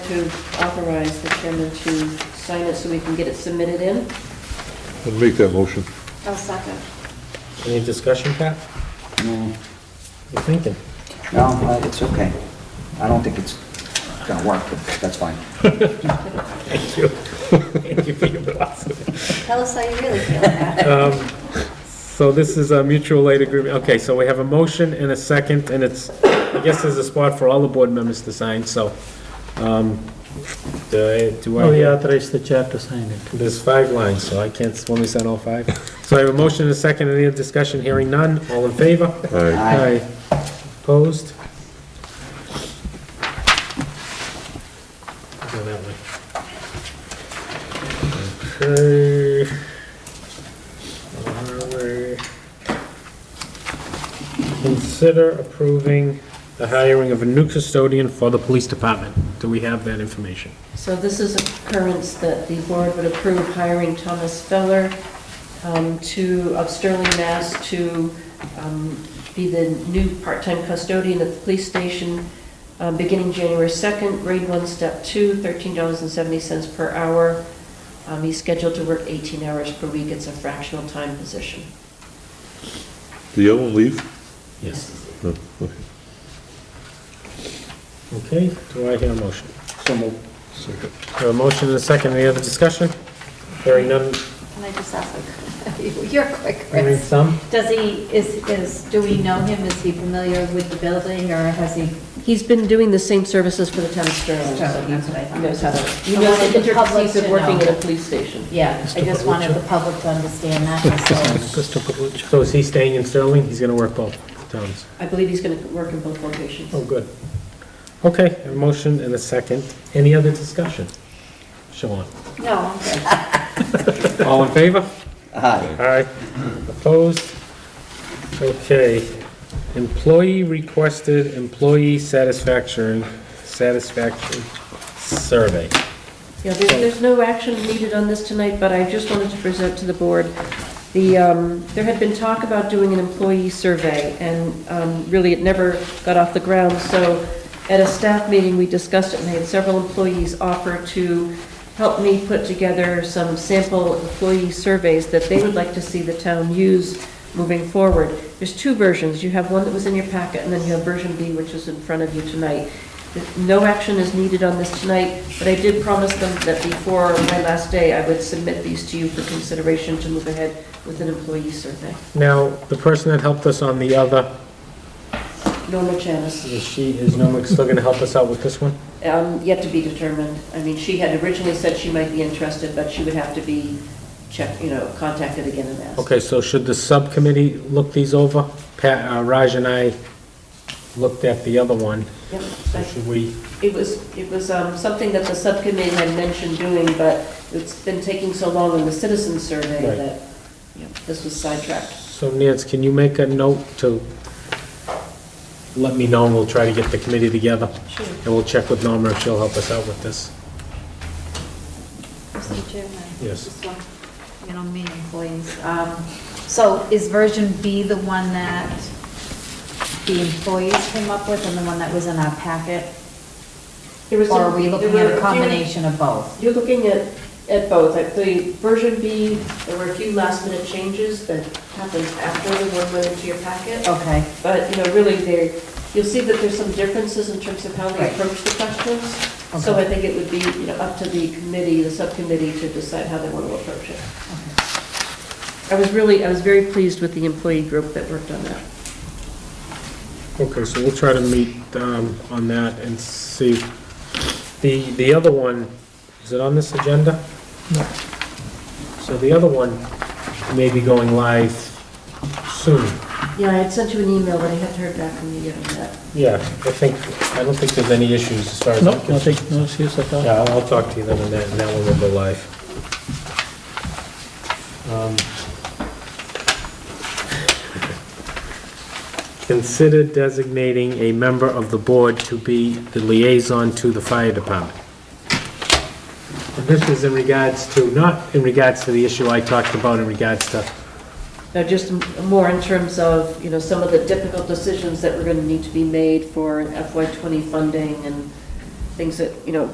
to authorize the chairman to sign it so we can get it submitted in. I'll make that motion. I'll second. Any discussion, Pat? No, You're thinking? No, uh, it's okay. I don't think it's gonna work, but that's fine. Thank you. Thank you for your philosophy. Tell us how you really feel about it. Um, So this is a mutual aid agreement. Okay, so we have a motion and a second, and it's, I guess there's a spot for all the board members to sign, so, um, do I- do I? Oh, he authorized the chair to sign it. There's five lines, so I can't, when we sign all five. So I have a motion and a second, any other discussion, hearing none, all in favor? Aye. Aye. Opposed? Go that way. Okay. Alright. Consider approving the hiring of a new custodian for the police department. Do we have that information? So this is a occurrence that the board would approve hiring Thomas Feller um, to, of Sterling, Mass. to um, be the new part-time custodian at the police station, um, beginning January 2nd, grade 1, step 2, $13.70 per hour. Um, He's scheduled to work 18 hours per week. It's a fractional time position. Do you want to leave? Yes. No, okay. Okay, do I hear a motion? So moved. Second. Have a motion and a second, any other discussion? Hearing none, Can I just ask, a- you're quick, hearing Chris. some? Does he, is, is, do we know him? Is he familiar with the building or has he? He's been doing the same services for the town of Sterling. so Sterling, that's what I thought. He knows how to, he I knows wanted the the public intricacies of to working know. in a police station. Yeah, I just wanted the public to understand that. so- Mr. Palucci. So is he staying in Sterling? He's gonna work both towns. I believe he's going to work in both locations. Oh, good. Okay, a motion and a second, any other discussion? Sean, No, I'm good. all in favor? Aye. Aye. Opposed? Okay. Employee requested employee satisfaction, satisfaction survey. Yeah, there- there's no action needed on this tonight, but I just wanted to present to the board, the, um, there had been talk about doing an employee survey, and um, really, it never got off the ground, so at a staff meeting, we discussed it, and I had several employees offer to help me put together some sample employee surveys that they would like to see the town use moving forward. There's two versions, you have one that was in your packet, and then you have version B, which is in front of you tonight. No action is needed on this tonight, but I did promise them that before my last day, I would submit these to you for consideration to move ahead with an employee survey. Now, the person that helped us on the other, Norma Chanis, is she, is Nomic still gonna help us out with this one? um, yet to be determined. I mean, she had originally said she might be interested, but she would have to be checked, you know, contacted again and asked. Okay, so should the subcommittee look these over? Pat, uh, Raj and I looked at the other one, Yep, so I- should we? It was, it was um, something that the subcommittee had mentioned doing, but it's been taking so long in the citizen survey Right. that you know, this was sidetracked. So Nancy, can you make a note to let me know, and we'll try to get the committee together? Sure. And we'll check with Norma if she'll help us out with this. Mr. Chairman? Yes. Just one, You know, me employees. Um, So is version B the one that the employees came up with and the one that was in our packet? There was Or a- are we looking there at were a few- combination of both? You're looking at, at both. At the version B, there were a few last minute changes that happened after the one went into your packet. Okay, But, you know, really there, you'll see that there's some differences in terms of how they Right. approach the questions. So I Okay. think it would be, you know, up to the committee, the subcommittee to decide how they want to approach it. I was really, I was very pleased with the employee group that worked on that. Okay, so we'll try to meet um, on that and see. The, the other one, is it on this agenda? No. So the other one may be going live soon. Yeah, I had sent you an email, but I haven't heard back from you yet on that. Yeah, I think, I don't think there's any issues as far as. No, I'm concerned. nothing, no issues at all. Yeah, I'll I'll talk to you then on that, and that one will go live. Um, Consider designating a member of the board to be the liaison to the fire department. And this is in regards to, not in regards to the issue I talked about in regards to, Now, just m- more in terms of, you know, some of the difficult decisions that were going to need to be made for FY '20 funding and things that, you know,